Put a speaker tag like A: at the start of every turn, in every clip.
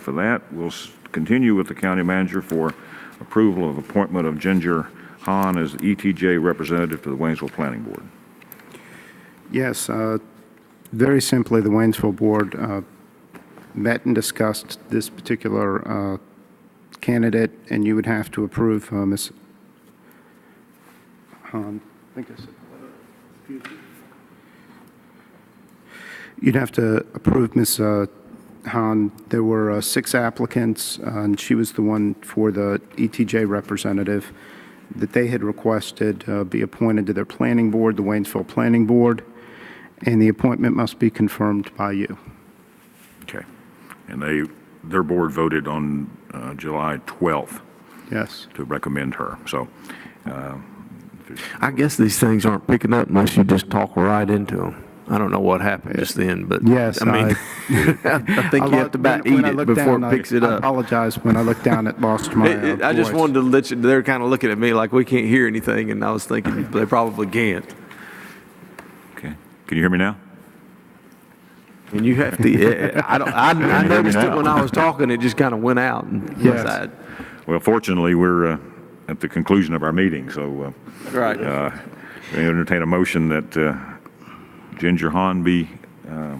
A: For that, we'll s- continue with the county manager for approval of appointment of Ginger Hahn as ETJ representative to the Waynesville Planning Board.
B: Yes, uh, very simply, the Waynesville Board uh, met and discussed this particular uh, candidate, and you would have to approve uh, Ms. Hahn. I think I said- You'd have to approve Ms. uh, Hahn. There were uh, six applicants, uh, and she was the one for the ETJ representative that they had requested uh, be appointed to their planning board, the Waynesville Planning Board, and the appointment must be confirmed by you.
A: Okay. And they, their board voted on uh, July 12th
B: Yes.
A: to recommend her, so. uh,
C: I guess these things aren't picking up unless you just talk right into them. I don't know what happened just then, but
B: Yes,
C: I mean, I think you have to about eat it before it picks it
B: I
C: up.
B: apologize. When I looked down, it lost my uh,
C: It- it- I just wanted to let you. They're kind of looking at me like we can't hear anything, and I was thinking they probably can't.
A: Okay. Can you hear me now?
C: And you have to. Yeah, I don't. I, I noticed it
A: now.
C: when I was talking. It just kind of went out. And
B: Yes.
C: aside.
A: Well, fortunately, we're uh, at the conclusion of our meeting, so uh,
C: Right.
A: uh, we entertain a motion that uh, Ginger Hahn be uh,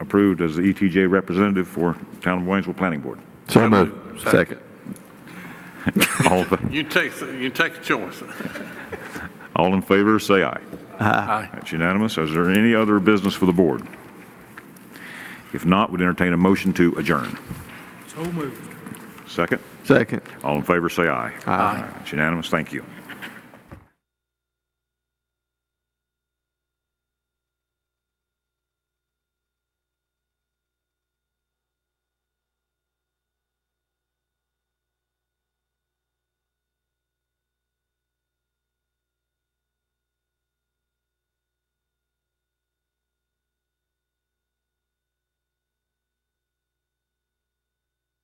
A: approved as the ETJ representative for Town of Waynesville Planning Board.
C: so moved. Second.
A: All, in-
D: You take, you take a choice.
A: all in favor, say aye. Aye. That's unanimous. Is there any other business for the board? If not, we'd entertain a motion to adjourn.
E: So moved.
A: Second,
C: Second.
A: all in favor, say aye. Aye. It's unanimous. Thank you.